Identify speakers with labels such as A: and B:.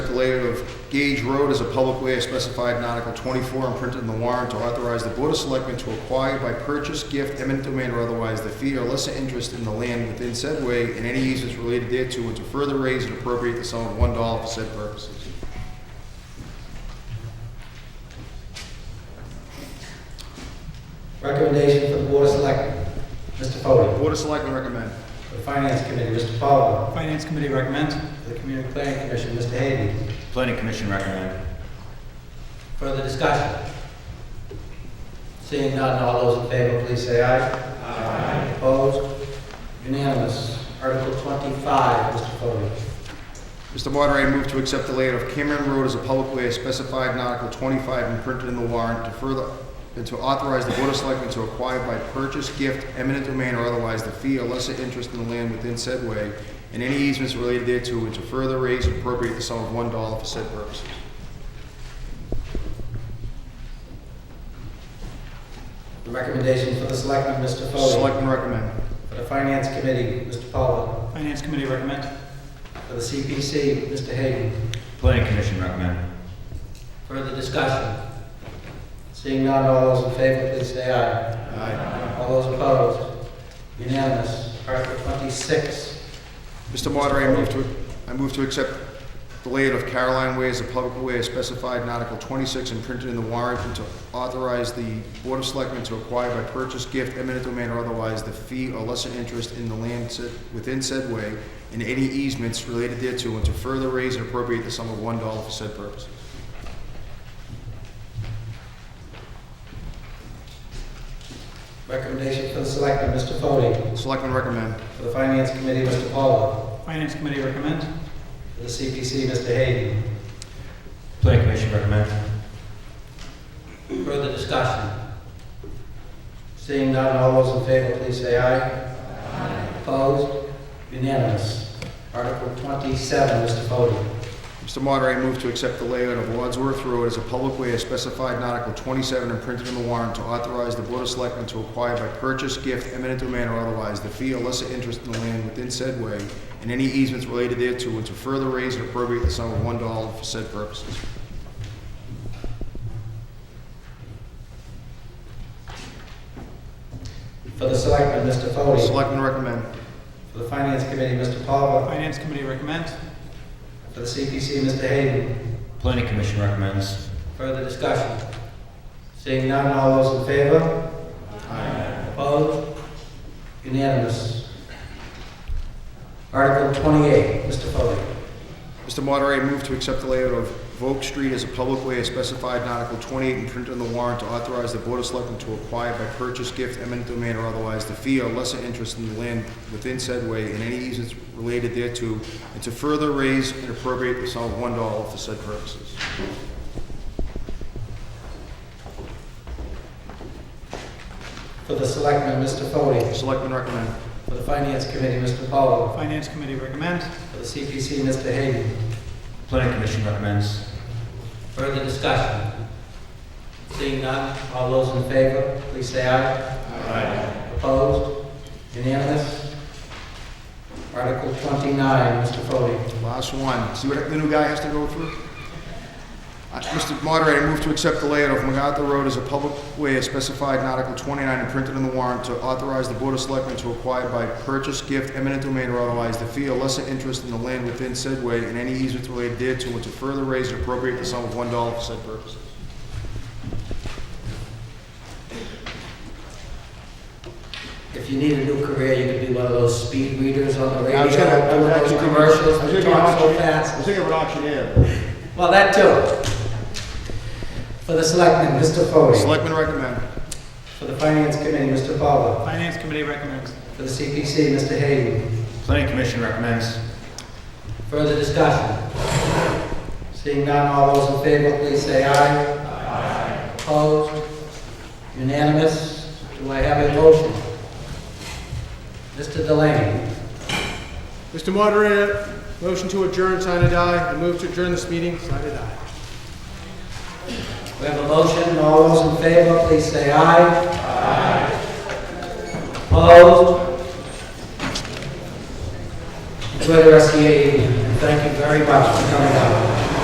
A: layer of Gage Road as a public way as specified in Article 24 and printed in the warrant to authorize the Board of Selectmen to acquire by purchase, gift, eminent domain, or otherwise, the fee or lesser interest in the land within said way and any easements related thereto, and to further raise and appropriate the sum of $1 for said purposes.
B: Recommendation for the Board of Selectmen, Mr. Foley.
A: Board of Selectmen recommend.
B: For the Finance Committee, Mr. Fowler.
C: Finance Committee recommends.
B: For the Community Planning Commission, Mr. Hayden.
D: Planning Commission recommend.
B: Further discussion? Seeing none, all those in favor, please say aye. Aye. Opposed? Unanimous. Article 25, Mr. Foley.
A: Mr. Moderator, I move to accept the layout of Cameron Road as a public way as specified in Article 25 and printed in the warrant to further, and to authorize the Board of Selectmen to acquire by purchase, gift, eminent domain, or otherwise, the fee or lesser interest in the land within said way, and any easements related thereto, and to further raise and appropriate the sum of $1 for said purposes.
B: The recommendation for the Selectmen, Mr. Foley.
A: Selectmen recommend.
B: For the Finance Committee, Mr. Fowler.
C: Finance Committee recommends.
B: For the CPC, Mr. Hayden.
D: Planning Commission recommend.
B: Further discussion? Seeing none, all those in favor, please say aye.
A: Aye.
B: All those opposed? Unanimous. Article 26,
A: Mr. Moderator, I move to, I move to accept the layout of Caroline Way as a public way as specified in Article 26 and printed in the warrant, and to authorize the Board of Selectmen to acquire by purchase, gift, eminent domain, or otherwise, the fee or lesser interest in the land said- within said way and any easements related thereto, and to further raise and appropriate the sum of $1 for said purposes.
B: recommendation for the Selectmen, Mr. Foley.
A: Selectmen recommend.
B: For the Finance Committee, Mr. Fowler.
C: Finance Committee recommends.
B: For the CPC, Mr. Hayden.
D: Planning Commission recommend.
B: Further discussion? Seeing none, all those in favor, please say aye. Opposed? Unanimous. Article 27, Mr. Foley.
A: Mr. Moderator, I move to accept the layout of Wadsworth Road as a public way as specified in Article 27 and printed in the warrant to authorize the Board of Selectmen to acquire by purchase, gift, eminent domain, or otherwise, the fee or lesser interest in the land within said way and any easements related thereto, and to further raise and appropriate the sum of $1 for said purposes.
B: For the Selectmen, Mr. Foley.
A: Selectmen recommend.
B: For the Finance Committee, Mr. Fowler.
C: Finance Committee recommends.
B: For the CPC, Mr. Hayden.
D: Planning Commission recommends.
B: Further discussion? Seeing none, all those in favor? Aye. Opposed? Unanimous. Article 28, Mr. Foley.
A: Mr. Moderator, I move to accept the layout of Volk Street as a public way as specified in Article 28 and printed in the warrant to authorize the Board of Selectmen to acquire by purchase, gift, eminent domain, or otherwise, the fee or lesser interest in the land within said way and any easements related thereto, and to further raise and appropriate the sum of $1 for said purposes.
B: For the Selectmen, Mr. Foley.
A: Selectmen recommend.
B: For the Finance Committee, Mr. Fowler.
C: Finance Committee recommends.
B: For the CPC, Mr. Hayden.
D: Planning Commission recommends.
B: Further discussion? Seeing none, all those in favor, please say aye. Aye. Opposed? Unanimous? Article 29, Mr. Foley.
A: Last one. See what the new guy has to go through? Uh, Mr. Moderator, I move to accept the layout of MacArthur Road as a public way as specified in Article 29 and printed in the warrant to authorize the Board of Selectmen to acquire by purchase, gift, eminent domain, or otherwise, the fee or lesser interest in the land within said way and any easements related thereto, and to further raise and appropriate the sum of $1 for said purposes.
B: If you need a new career, you could be one of those speed readers on the radio.
A: I was gonna- I was
B: one of those
A: actually gonna-
B: Commercials,
A: I was
B: that
A: gonna
B: talk so
A: auction- I was
B: fast.
A: thinking of an auctioneer.
B: Well, that too. For the selectmen, Mr. Foley.
A: Selectmen recommend.
B: For the finance committee, Mr. Fowler.
C: Finance Committee recommends.
B: For the CPC, Mr. Hayden.
D: Planning Commission recommends.
B: Further discussion? Seeing none, all those in favor, please say aye. Aye. Opposed? Unanimous? Do I have a motion? Mr. Delaney.
E: Mr. Moderator, motion to adjourn, sign and die. I move to adjourn this meeting, sign and die.
B: We have a motion, all those in favor, please say aye. Aye. Opposed? Enjoy the rest of your evening, and thank you very much for coming out.